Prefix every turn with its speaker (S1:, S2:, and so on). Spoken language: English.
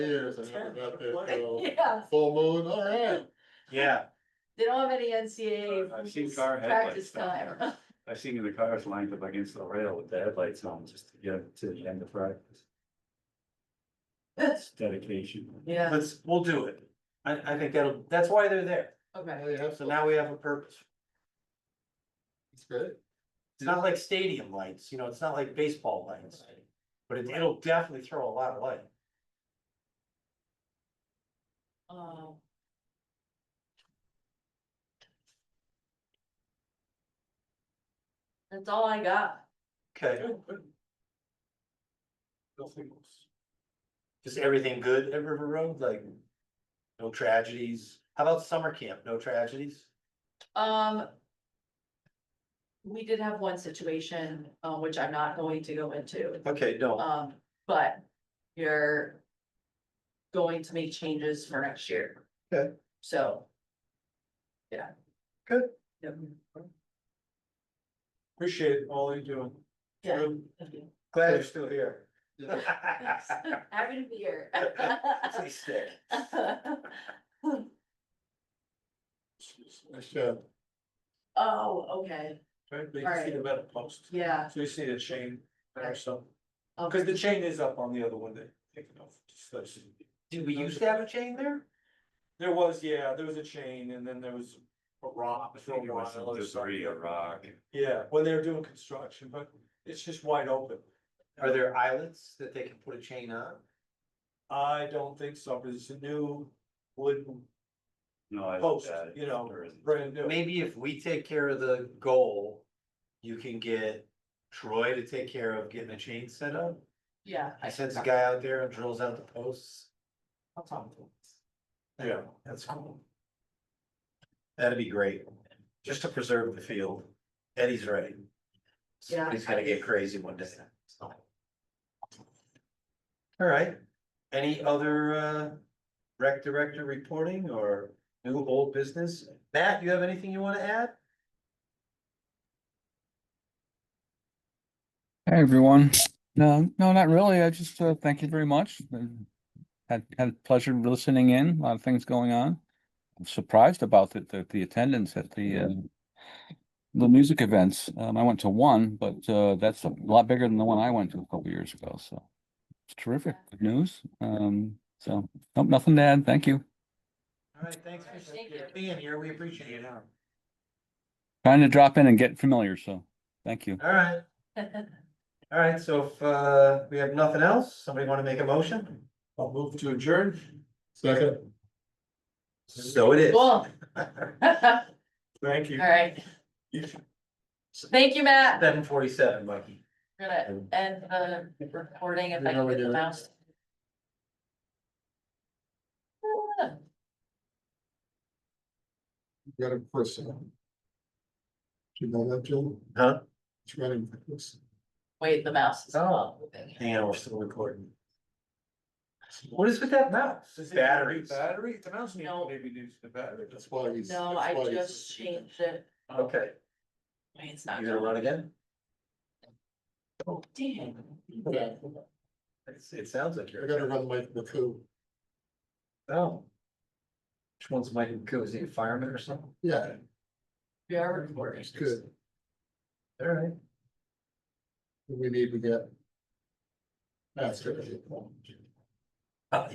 S1: years, I never got there till
S2: Yeah,
S1: full moon, all right.
S3: Yeah,
S2: they don't have any NCAA.
S3: I've seen car
S2: Practice
S3: headlights.
S2: time.
S3: I've seen the cars lined up against the rail with the headlights on just to get to the end of practice. That's dedication.
S2: Yeah.
S3: Let's, we'll do it. I, I think that'll, that's why they're there.
S2: Okay.
S1: Now you have
S3: So
S1: some.
S3: now we have a purpose.
S1: It's great.
S3: It's not like stadium lights, you know, it's not like baseball lights. But it- it'll definitely throw a lot of light.
S2: Um, That's all I got.
S3: Okay, just everything good at River Road, like no tragedies. How about summer camp? No tragedies?
S2: Um. We did have one situation, uh, which I'm not going to go into,
S3: Okay, no.
S2: um, but you're. Going to make changes for next year.
S3: Okay.
S2: So. Yeah.
S3: Good.
S2: Yep.
S3: Appreciate all you're doing.
S2: Yeah.
S3: Glad you're still here.
S1: Yeah.
S2: Happy to be here.
S3: Stay sick.
S1: Nice job.
S2: Oh, okay,
S4: Right,
S2: All
S4: but you
S2: right.
S4: see the metal post,
S2: yeah. Um,
S4: so you see the chain
S2: Okay.
S4: or something,
S2: Okay.
S4: because the chain is up on the other one that taken off. just those.
S3: Did we used to have a chain there?
S4: There was, yeah, there was a chain and then there was a rock. for a while, other side. Yeah, when they were doing construction, but it's just wide open.
S3: Are there islets that they can put a chain on?
S4: I don't think so, because it's a new wooden
S5: No, I.
S3: Oh.
S4: post,
S5: I-
S4: you know,
S5: there isn't.
S4: brand new.
S3: Maybe if we take care of the goal, you can get Troy to take care of getting a chain set up.
S2: Yeah.
S3: I sends a guy out there and drills out the posts.
S2: I'll talk to him.
S3: Yeah, that's cool. That'd be great, just to preserve the field. Eddie's right.
S2: Yeah.
S3: Somebody's gonna get crazy one day. All right, any other uh rec director reporting or new old business? Matt, you have anything you wanna add?
S6: Hey, everyone. No, no, not really. I just uh, thank you very much. Uh, Had had pleasure listening in. A lot of things going on. I'm surprised about the the, the attendance at the uh, the music events. Um, I went to one, but uh, that's a lot bigger than the one I went to a couple years ago. So it's terrific. Good news. Um, so nope, nothing to add. Thank you.
S3: All right, thanks for
S2: Thank you.
S3: being here, we appreciate it. All
S6: Trying to drop in and get familiar. So thank you.
S3: right, all right, so if uh we have nothing else, somebody wanna make a motion?
S4: I'll move to adjourn.
S1: Second,
S3: So it is.
S2: Cool. All
S4: Thank you.
S2: right. Thank you, Matt.
S3: Seven forty-seven, Mikey.
S2: We're gonna end the recording if I
S1: Yeah,
S2: can
S1: we
S2: get the
S1: do.
S2: mouse.
S1: got a person. Do you know that, Jill?
S3: Huh?
S1: It's running for this.
S2: Wait, the mouse is
S1: Oh.
S2: not moving.
S3: Hang on, we're still recording. What is with that mouse?
S4: Does it need a new
S3: Batteries.
S4: Battery, the mouse needs to
S2: No.
S4: maybe needs the battery.
S1: That's why he's.
S2: No,
S1: that's why
S2: I
S1: he's-
S2: just changed it.
S3: Okay,
S2: Wait, it's not.
S3: you gonna run again?
S2: going. Damn.
S1: Yeah,
S3: It's, it sounds like
S1: I
S3: you're.
S1: gotta run like the coup.
S3: Oh. Which one's Mike and Cozy, a fireman or something?
S1: Yeah,
S2: We are recording.
S1: it's good.
S3: All right.
S1: We need to get. That's good.